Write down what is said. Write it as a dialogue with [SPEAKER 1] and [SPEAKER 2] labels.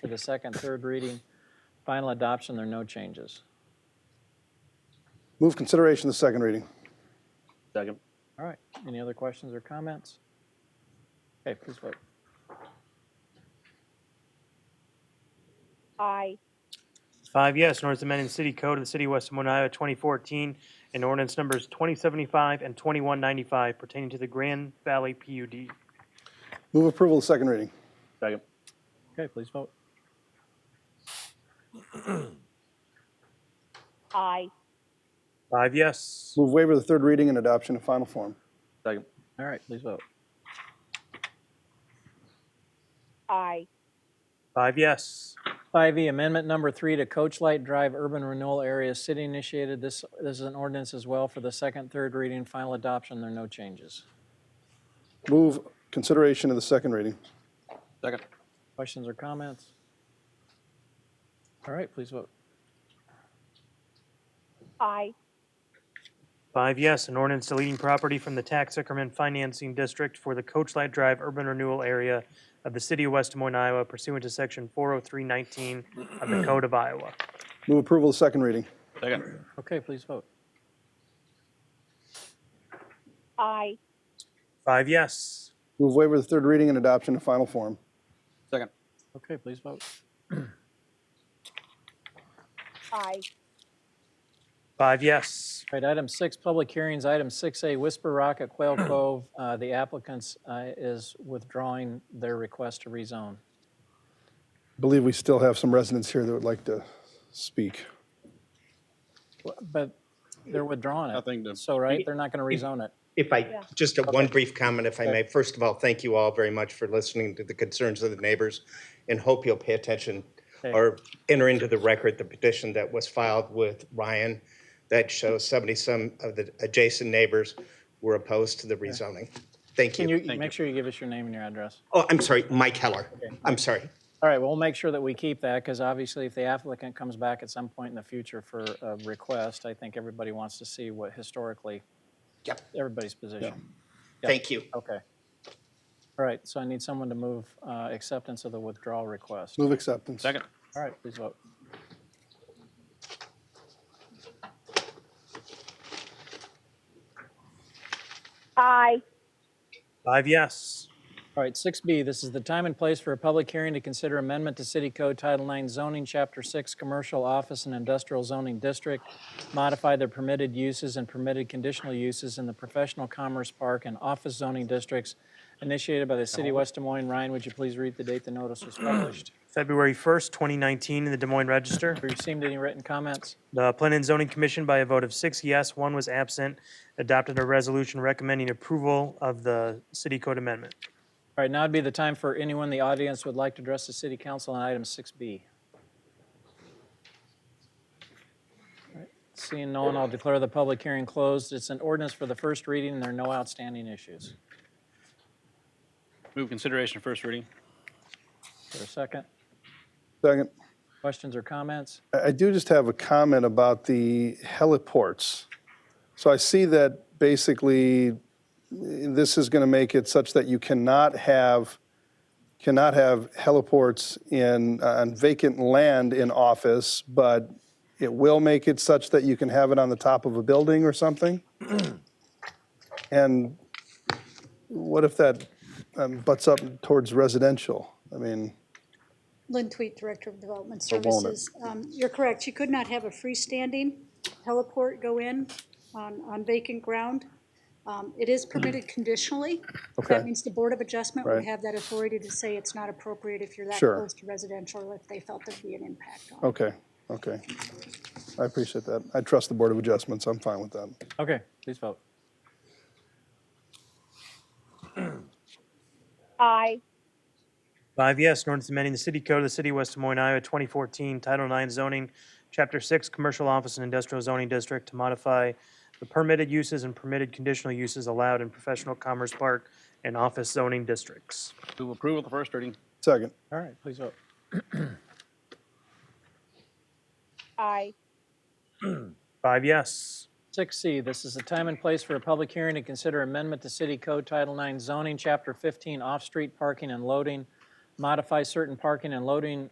[SPEAKER 1] for the second, third reading, final adoption, there are no changes.
[SPEAKER 2] Move consideration of the second reading.
[SPEAKER 3] Second.
[SPEAKER 1] All right, any other questions or comments? Okay, please vote.
[SPEAKER 4] I,
[SPEAKER 5] Five yes, an ordinance amending City Code of the City of West Des Moines, Iowa, 2014, and ordinance numbers 2075 and 2195 pertaining to the Grand Valley PUD.
[SPEAKER 2] Move approval of the second reading.
[SPEAKER 3] Second.
[SPEAKER 1] Okay, please vote.
[SPEAKER 4] I,
[SPEAKER 5] Five yes.
[SPEAKER 2] Move waiver of the third reading and adoption in final form.
[SPEAKER 3] Second.
[SPEAKER 1] All right, please vote.
[SPEAKER 4] I,
[SPEAKER 5] Five yes.
[SPEAKER 1] 5E, E, amendment number three to Coach Light Drive Urban Renewal Area City initiated. This, this is an ordinance as well for the second, third reading, final adoption, there are no changes.
[SPEAKER 2] Move consideration of the second reading.
[SPEAKER 3] Second.
[SPEAKER 1] Questions or comments? All right, please vote.
[SPEAKER 4] I,
[SPEAKER 5] Five yes, an ordinance deleting property from the tax increment financing district for the Coach Light Drive urban renewal area of the City of West Des Moines, Iowa pursuant to Section 40319 of the Code of Iowa.
[SPEAKER 2] Move approval of the second reading.
[SPEAKER 3] Second.
[SPEAKER 1] Okay, please vote.
[SPEAKER 4] I,
[SPEAKER 5] Five yes.
[SPEAKER 2] Move waiver of the third reading and adoption in final form.
[SPEAKER 3] Second.
[SPEAKER 1] Okay, please vote.
[SPEAKER 4] I,
[SPEAKER 5] Five yes.
[SPEAKER 1] All right, item six, public hearings, item six A, Whisper Rock at Quail Cove. Uh, The applicant's uh, is withdrawing their request to rezone.
[SPEAKER 2] Believe we still have some residents here that would like to speak.
[SPEAKER 1] But they're withdrawing it.
[SPEAKER 3] I think the-
[SPEAKER 1] So, right, they're not going to rezone it.
[SPEAKER 6] If I, just a one brief comment, if I may. First of all, thank you all very much for listening to the concerns of the neighbors and hope you'll pay attention or enter into the record the petition that was filed with Ryan that shows 70-some of the adjacent neighbors were opposed to the rezoning. Thank
[SPEAKER 1] Can
[SPEAKER 6] you.
[SPEAKER 1] you e- make sure you give us your name and your address?
[SPEAKER 6] Oh, I'm sorry, Mike Heller. I'm sorry.
[SPEAKER 1] All right, well, we'll make sure that we keep that, because obviously if the applicant comes back at some point in the future for a request, I think everybody wants to see what historically,
[SPEAKER 6] Yep,
[SPEAKER 1] everybody's position.
[SPEAKER 6] thank you.
[SPEAKER 1] Okay. All right, so I need someone to move uh, acceptance of the withdrawal request.
[SPEAKER 2] Move acceptance.
[SPEAKER 3] Second.
[SPEAKER 1] All right, please vote.
[SPEAKER 4] I,
[SPEAKER 5] Five yes.
[SPEAKER 1] All right, 6B, this is the time and place for a public hearing to consider amendment to City Code Title IX zoning, Chapter 6, Commercial Office and Industrial Zoning District, modify the permitted uses and permitted conditional uses in the Professional Commerce Park and Office Zoning Districts initiated by the City of West Des Moines. Ryan, would you please read the date the notice was published?
[SPEAKER 5] February 1st, 2019, in the Des Moines Register.
[SPEAKER 1] Have you received any written comments?
[SPEAKER 5] The Planning and Zoning Commission, by a vote of six yes, one was absent, adopted a resolution recommending approval of the city code amendment.
[SPEAKER 1] All right, now would be the time for anyone in the audience who would like to address the City Council on item 6B. All right, Seeing no one, I'll declare the public hearing closed. It's an ordinance for the first reading, and there are no outstanding issues.
[SPEAKER 3] Move consideration first reading.
[SPEAKER 1] For a second,
[SPEAKER 2] Second.
[SPEAKER 1] questions or comments?
[SPEAKER 2] I I do just have a comment about the heliports. So I see that basically eh, this is going to make it such that you cannot have cannot have heliports in uh, on vacant land in office, but it will make it such that you can have it on the top of a building or something. and what if that um, butts up towards residential? I mean.
[SPEAKER 7] Lynn Tweet, Director of Development
[SPEAKER 2] Or won't it?
[SPEAKER 7] Services. Um, You're correct, you could not have a freestanding heliport go in on, on vacant ground. Um, It is permitted conditionally.
[SPEAKER 2] Mm. Okay.
[SPEAKER 7] That means the Board of Adjustment would
[SPEAKER 2] Right.
[SPEAKER 7] have that authority to say it's not appropriate if you're that
[SPEAKER 2] Sure.
[SPEAKER 7] close to residential, or if they felt there'd be an impact on it.
[SPEAKER 2] Okay, okay. I appreciate that. I trust the Board of Adjustments. I'm fine with that.
[SPEAKER 1] Okay, please vote.
[SPEAKER 4] I,
[SPEAKER 5] Five yes, an ordinance amending the city code of the city of West Des Moines, Iowa, 2014, Title IX zoning, Chapter 6, Commercial Office and Industrial Zoning District to modify the permitted uses and permitted conditional uses allowed in professional commerce park and office zoning districts.
[SPEAKER 3] Move approval of the first reading.
[SPEAKER 2] Second,
[SPEAKER 1] All right, please vote.
[SPEAKER 4] I,
[SPEAKER 5] Five yes.
[SPEAKER 1] 6C, this is the time and place for a public hearing to consider amendment to City Code Title IX zoning, Chapter 15, off-street parking and loading, modify certain parking and loading